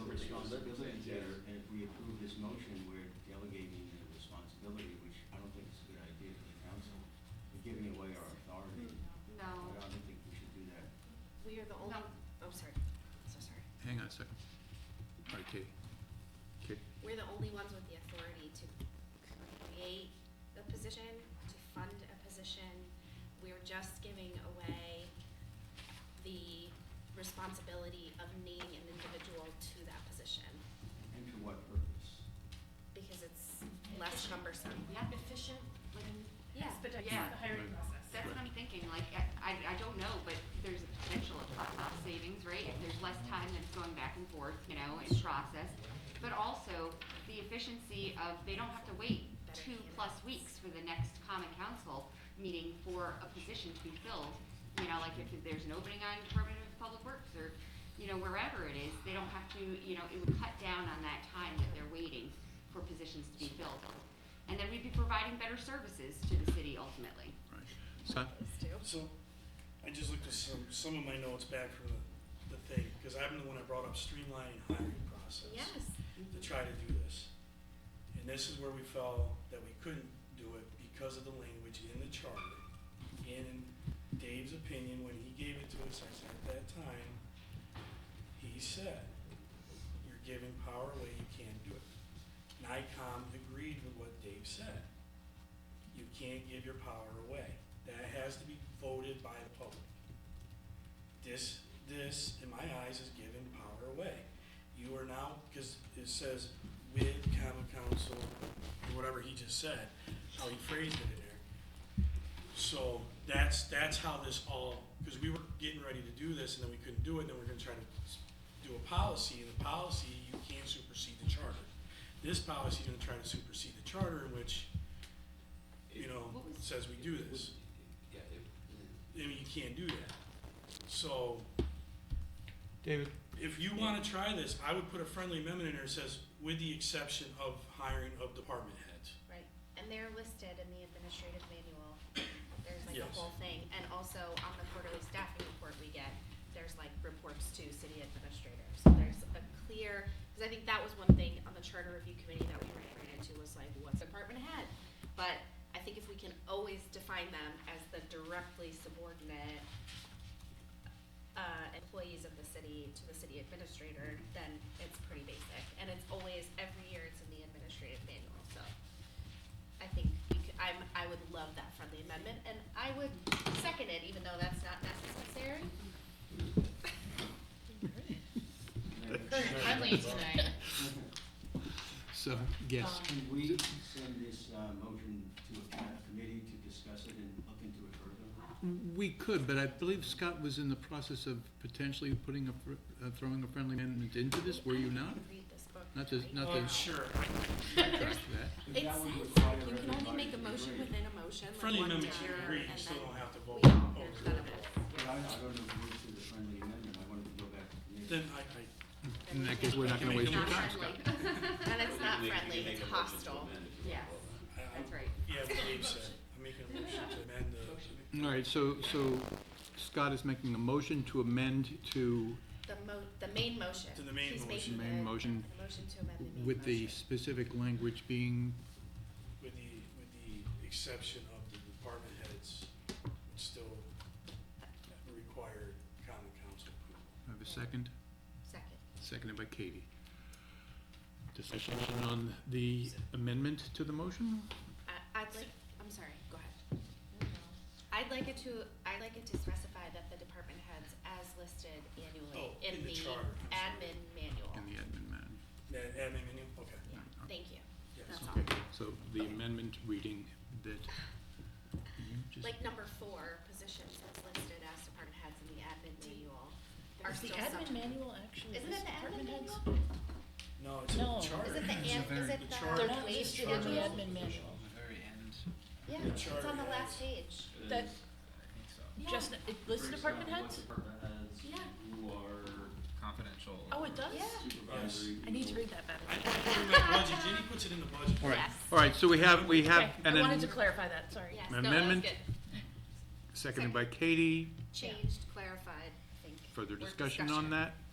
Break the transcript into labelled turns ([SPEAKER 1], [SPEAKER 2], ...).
[SPEAKER 1] responsibilities
[SPEAKER 2] Yes.
[SPEAKER 1] there, and if we approve this motion, we're delegating the responsibility, which I don't think is a good idea to the council. We're giving away our authority. I
[SPEAKER 3] No,
[SPEAKER 1] don't think we should do that.
[SPEAKER 3] we are the only,
[SPEAKER 4] No.
[SPEAKER 3] oh, sorry, so sorry.
[SPEAKER 5] Hang on a second. All right, Katie. Katie,
[SPEAKER 3] We're the only ones with the authority to create a position, to fund a position. We're just giving away the responsibility of naming an individual to that position
[SPEAKER 1] And to what purpose?
[SPEAKER 3] because it's less cumbersome.
[SPEAKER 4] Yeah, efficient, like,
[SPEAKER 3] Yeah.
[SPEAKER 4] expedite
[SPEAKER 5] Yeah.
[SPEAKER 4] uh, the hiring
[SPEAKER 5] Right.
[SPEAKER 4] process.
[SPEAKER 6] That's what I'm thinking, like, I, I I don't know, but there's a potential of cost savings, right? If there's less time that's going back and forth, you know, in process. But also, the efficiency of, they don't have to wait two plus weeks for the next common council meeting for a position to be filled. You know, like if there's an opening on Department of Public Works or, you know, wherever it is, they don't have to, you know, it would cut down on that time that they're waiting for positions to be filled. And then we'd be providing better services to the city ultimately.
[SPEAKER 5] all right. Son,
[SPEAKER 7] So, I just looked at some, some of my notes back from the, the thing, because I'm the one that brought up streamlining hiring process.
[SPEAKER 3] Yes,
[SPEAKER 7] To try to do this. And this is where we felt that we couldn't do it because of the language in the charter. And in Dave's opinion, when he gave it to us, I said at that time, he said, you're giving power away, you can't do it. NICOM agreed with what Dave said. You can't give your power away. That has to be voted by the public. This, this, in my eyes, is giving power away. You are now, because it says with common council, or whatever he just said, how he phrased it in there. So that's, that's how this all, because we were getting ready to do this, and then we couldn't do it, and then we're gonna try to s- do a policy, and the policy, you can't supersede the charter. This policy is gonna try to supersede the charter, in which, you know,
[SPEAKER 6] What was-
[SPEAKER 7] says we do this.
[SPEAKER 2] Yeah, it,
[SPEAKER 7] I mean, you can't do that. So,
[SPEAKER 5] David,
[SPEAKER 7] if you wanna try this, I would put a friendly amendment in there that says, with the exception of hiring of department heads.
[SPEAKER 3] right. And they're listed in the administrative manual. There's like a
[SPEAKER 7] Yes.
[SPEAKER 3] whole thing. And also on the quarterly staffing report we get, there's like reports to city administrators. So there's a clear, because I think that was one thing on the charter review committee that we ran into was like, what's department head? But I think if we can always define them as the directly subordinate uh, employees of the city to the city administrator, then it's pretty basic. And it's always, every year it's in the administrative manual, so I think we could, I'm, I would love that friendly amendment, and I would second it, even though that's not necessary.
[SPEAKER 4] Friendly tonight.
[SPEAKER 5] so, yes,
[SPEAKER 1] Can we send this uh, motion to a committee to discuss it and look into it further?
[SPEAKER 5] we could, but I believe Scott was in the process of potentially putting a, fr- uh, throwing a friendly amendment into this, were you not?
[SPEAKER 3] Read this book.
[SPEAKER 5] Not to,
[SPEAKER 3] right?
[SPEAKER 5] not to
[SPEAKER 7] Um, sure,
[SPEAKER 5] trash that.
[SPEAKER 1] Because
[SPEAKER 3] It
[SPEAKER 1] that would
[SPEAKER 3] says,
[SPEAKER 1] require
[SPEAKER 3] you can only
[SPEAKER 1] everybody
[SPEAKER 3] make a
[SPEAKER 1] to
[SPEAKER 3] motion
[SPEAKER 1] agree.
[SPEAKER 3] within a motion, like
[SPEAKER 7] friendly
[SPEAKER 3] one
[SPEAKER 7] amendment,
[SPEAKER 3] tier,
[SPEAKER 7] you
[SPEAKER 3] and
[SPEAKER 7] agree,
[SPEAKER 3] then
[SPEAKER 7] you still don't have to
[SPEAKER 3] we
[SPEAKER 7] vote. Oh,
[SPEAKER 3] all,
[SPEAKER 7] over
[SPEAKER 3] there's none
[SPEAKER 7] it.
[SPEAKER 3] of us.
[SPEAKER 1] But I, I don't know if we're to the friendly amendment, I wanted to go back to committee.
[SPEAKER 7] Then I,
[SPEAKER 5] In that case, we're not gonna
[SPEAKER 7] Make
[SPEAKER 5] waste
[SPEAKER 7] a
[SPEAKER 5] your
[SPEAKER 6] Not
[SPEAKER 5] time,
[SPEAKER 6] friendly.
[SPEAKER 5] Scott.
[SPEAKER 3] And it's not
[SPEAKER 2] You can make- you can make
[SPEAKER 3] friendly,
[SPEAKER 2] a motion to
[SPEAKER 3] it's hostile.
[SPEAKER 2] amend if you want.
[SPEAKER 6] Yes,
[SPEAKER 7] I, I,
[SPEAKER 6] that's right.
[SPEAKER 7] yeah, what Dave said, I'm making a motion to amend the,
[SPEAKER 5] All right, so, so Scott is making a motion to amend to,
[SPEAKER 3] The mo, the main motion.
[SPEAKER 7] To the main
[SPEAKER 3] He's making
[SPEAKER 7] motion.
[SPEAKER 5] Main
[SPEAKER 3] the-
[SPEAKER 5] motion
[SPEAKER 3] the motion to amend the main
[SPEAKER 5] with the
[SPEAKER 3] motion.
[SPEAKER 5] specific language being,
[SPEAKER 7] with the, with the exception of the department heads, which still require common council approval.
[SPEAKER 5] I have a second?
[SPEAKER 3] Second.
[SPEAKER 5] Seconded by Katie. Discussion on the amendment to the motion?
[SPEAKER 3] I, I'd like, I'm sorry, go ahead. I'd like it to, I'd like it to specify that the department heads as listed annually
[SPEAKER 7] Oh,
[SPEAKER 3] in
[SPEAKER 7] in the
[SPEAKER 3] the
[SPEAKER 7] charter, I'm sorry.
[SPEAKER 3] admin manual.
[SPEAKER 5] In the admin man.
[SPEAKER 7] That, that amendment, okay,
[SPEAKER 3] Yeah, Thank you.
[SPEAKER 7] yes.
[SPEAKER 3] That's all.
[SPEAKER 5] Okay, so the amendment reading that you just,
[SPEAKER 3] Like number four, positions as listed as department heads in the admin manual. are
[SPEAKER 4] Is the
[SPEAKER 3] still
[SPEAKER 4] admin
[SPEAKER 3] sub-
[SPEAKER 4] manual actually?
[SPEAKER 3] Isn't
[SPEAKER 4] is
[SPEAKER 3] it the admin
[SPEAKER 4] department heads?
[SPEAKER 3] manual?
[SPEAKER 7] No, it's in the
[SPEAKER 4] No.
[SPEAKER 7] charter.
[SPEAKER 3] Is it the, an- is it
[SPEAKER 7] The
[SPEAKER 3] the?
[SPEAKER 7] charter.
[SPEAKER 4] They're not
[SPEAKER 3] wage
[SPEAKER 4] listed in the
[SPEAKER 3] schedule?
[SPEAKER 4] admin manual.
[SPEAKER 3] Yeah,
[SPEAKER 7] The
[SPEAKER 3] it's
[SPEAKER 7] charter
[SPEAKER 3] on the last
[SPEAKER 7] has-
[SPEAKER 3] page.
[SPEAKER 2] It
[SPEAKER 4] That-
[SPEAKER 2] is.
[SPEAKER 3] Yeah.
[SPEAKER 4] Just, it lists
[SPEAKER 8] breaks
[SPEAKER 4] department
[SPEAKER 8] down
[SPEAKER 4] heads?
[SPEAKER 8] What department heads,
[SPEAKER 3] Yeah.
[SPEAKER 8] who are confidential.
[SPEAKER 4] Oh, it does?
[SPEAKER 3] Yeah.
[SPEAKER 8] Supervisory.
[SPEAKER 4] I need to
[SPEAKER 8] people.
[SPEAKER 4] read that better.
[SPEAKER 7] I put it in my budget, Jenny puts it in the budget.
[SPEAKER 5] all right,
[SPEAKER 3] Yes.
[SPEAKER 5] all right, so we have, we have
[SPEAKER 4] Okay,
[SPEAKER 5] an,
[SPEAKER 4] I wanted
[SPEAKER 5] am-
[SPEAKER 4] to clarify that, sorry.
[SPEAKER 3] Yes,
[SPEAKER 5] An
[SPEAKER 3] no, that's
[SPEAKER 5] amendment?
[SPEAKER 3] good.
[SPEAKER 5] seconded by Katie,
[SPEAKER 3] Changed, clarified, I think.
[SPEAKER 5] further
[SPEAKER 3] We're
[SPEAKER 5] discussion on that?